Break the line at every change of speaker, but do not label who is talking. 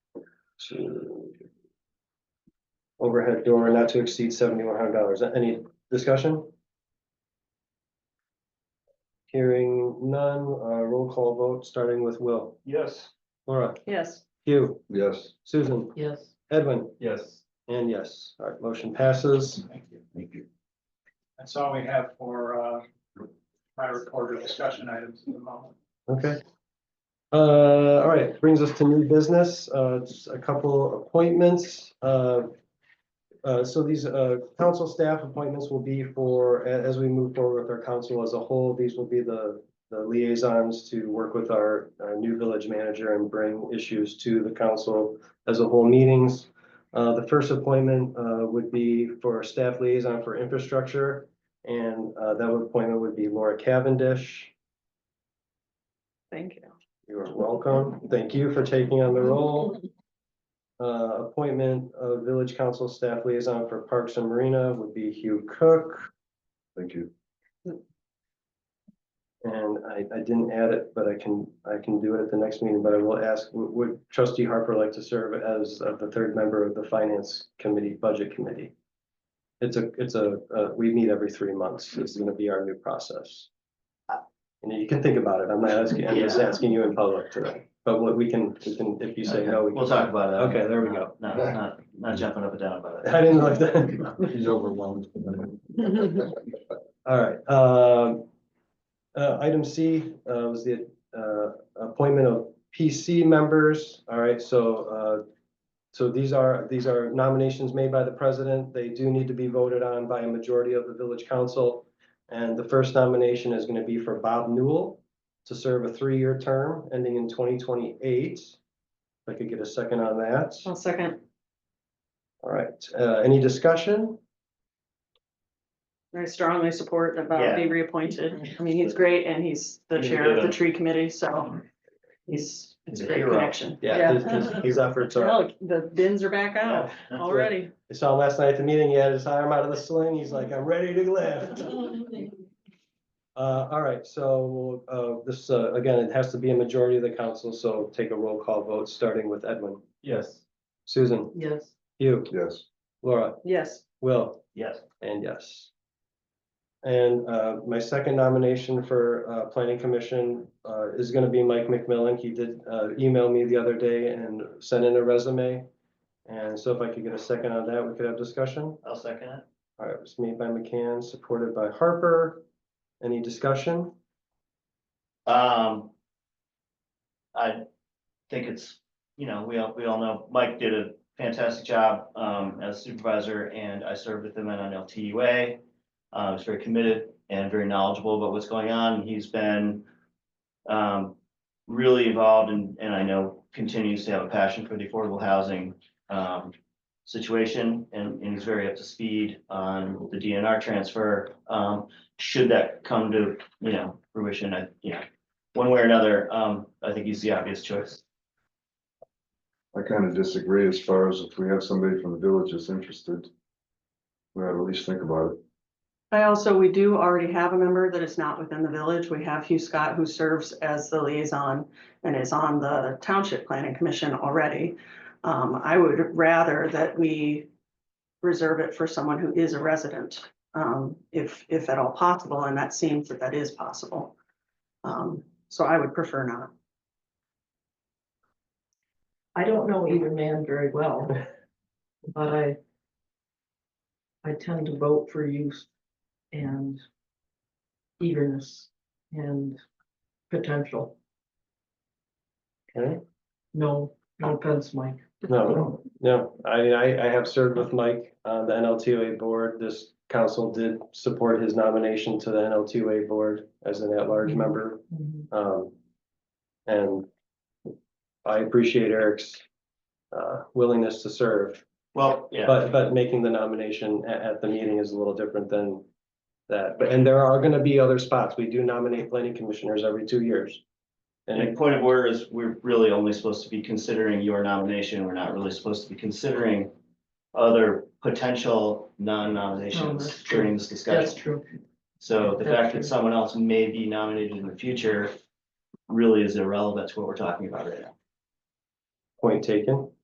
to overhead door not to exceed seventy-one hundred dollars. Any discussion? Hearing none, uh, roll call vote, starting with Will,
Yes.
Laura,
Yes.
Hugh,
Yes.
Susan,
Yes.
Edwin,
Yes.
and yes. All right, motion passes.
Thank you. Thank you.
That's all we have for uh, my reporter discussion items at the moment.
Okay. Uh, all right, brings us to new business, uh, just a couple appointments, uh. Uh, so these, uh, council staff appointments will be for, a- as we move forward with our council as a whole, these will be the. The liaisons to work with our, our new village manager and bring issues to the council as a whole meetings. Uh, the first appointment, uh, would be for staff liaison for infrastructure. And, uh, that appointment would be Laura Cavendish.
Thank you.
You are welcome. Thank you for taking on the role. Uh, appointment of village council staff liaison for Parks and Marina would be Hugh Cook.
Thank you.
And I, I didn't add it, but I can, I can do it at the next meeting, but I will ask, would- would trustee Harper like to serve as uh, the third member of the finance committee, budget committee? It's a, it's a, uh, we meet every three months. It's gonna be our new process. And you can think about it. I'm not asking, I'm just
Yeah.
asking you in public today, but what we can, we can, if you say no, we can.
We'll talk about it.
Okay, there we go.
Not, not, not jumping up and down about it.
I didn't like that.
He's overwhelmed.
All right, um. Uh, item C, uh, was the, uh, appointment of PC members. All right, so, uh. So these are, these are nominations made by the president. They do need to be voted on by a majority of the village council. And the first nomination is gonna be for Bob Newell to serve a three-year term ending in twenty twenty-eight. If I could get a second on that.
I'll second.
All right, uh, any discussion?
I strongly support about
Yeah.
being reappointed. I mean, he's great and he's the
He's
chair of the
good.
tree committee, so he's, it's a
He's a
great
hero.
connection.
Yeah, his- his, his efforts are.
Look, the bins are back out
Yeah.
already.
I saw him last night at the meeting, he had his arm out of the sling, he's like, I'm ready to lift. Uh, all right, so, uh, this, uh, again, it has to be a majority of the council, so take a roll call vote, starting with Edwin.
Yes.
Susan,
Yes.
you,
Yes.
Laura,
Yes.
Will.
Yes,
And yes. And uh, my second nomination for uh, Planning Commission uh, is going to be Mike McMillan. He did uh, email me the other day and sent in a resume. And so if I could get a second on that, we could have discussion.
I'll second it.
All right, it was made by McCann, supported by Harper. Any discussion?
Um. I think it's, you know, we all, we all know Mike did a fantastic job um as supervisor and I served with him at an LTUA. Uh, he's very committed and very knowledgeable about what's going on. He's been um really involved and and I know continues to have a passion for the affordable housing um situation and and he's very up to speed on the DNR transfer. Um, should that come to, you know, fruition, I, you know, one way or another, um, I think he's the obvious choice.
I kind of disagree as far as if we have somebody from the village that's interested. We ought to at least think about it.
I also, we do already have a member that is not within the village. We have Hugh Scott who serves as the liaison and is on the Township Planning Commission already. Um, I would rather that we reserve it for someone who is a resident, um, if, if at all possible, and that seems that that is possible. Um, so I would prefer not.
I don't know either man very well, but I. I tend to vote for youth and eagerness and potential.
Okay.
No, no offense, Mike.
No, no, I, I, I have served with Mike on the NLTOA board. This council did support his nomination to the NLTOA board as an at-large member.
Mm-hmm.
Um, and I appreciate Eric's uh, willingness to serve,
Well, yeah,
but, but making the nomination at, at the meeting is a little different than that. But, and there are gonna be other spots. We do nominate planning commissioners every two years. And
and
it-
point of order is we're really only supposed to be considering your nomination. We're not really supposed to be considering other potential
No,
non-nominations
that's true.
during this
That's
discussion.
true.
So the
That's
fact
true.
that someone else may be nominated in the future really is irrelevant to what we're talking about right now.
point taken.